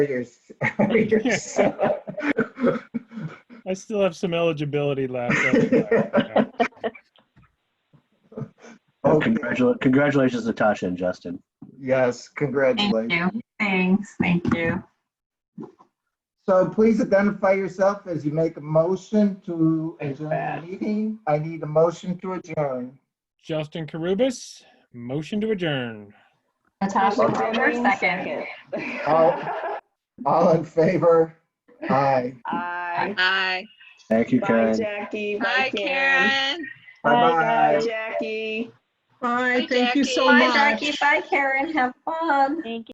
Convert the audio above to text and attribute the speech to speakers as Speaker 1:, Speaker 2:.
Speaker 1: Warriors. Warriors.
Speaker 2: I still have some eligibility left. I'll be back.
Speaker 3: Oh,
Speaker 1: Okay.
Speaker 3: congratulations, congratulations, Natasha and Justin.
Speaker 1: Yes,
Speaker 4: Thank
Speaker 1: congratulations.
Speaker 4: you. Thanks, thank you.
Speaker 1: So please identify yourself as you make a motion to
Speaker 5: Thanks,
Speaker 1: adjourn the
Speaker 5: Pat.
Speaker 1: meeting. I need a motion to adjourn.
Speaker 2: Justin Carubus, motion to adjourn.
Speaker 4: Natasha, Carter, second.
Speaker 1: Oh. All in favor? Aye.
Speaker 5: Aye.
Speaker 6: Hi.
Speaker 3: Thank you,
Speaker 5: Bye,
Speaker 3: Karen.
Speaker 5: Jackie.
Speaker 6: Hi, Karen.
Speaker 5: Bye,
Speaker 1: Bye-bye.
Speaker 5: Jackie.
Speaker 7: Bye,
Speaker 6: Hi,
Speaker 7: thank you so
Speaker 6: Jackie.
Speaker 4: Bye,
Speaker 7: much.
Speaker 4: Jackie. Bye, Karen. Have fun.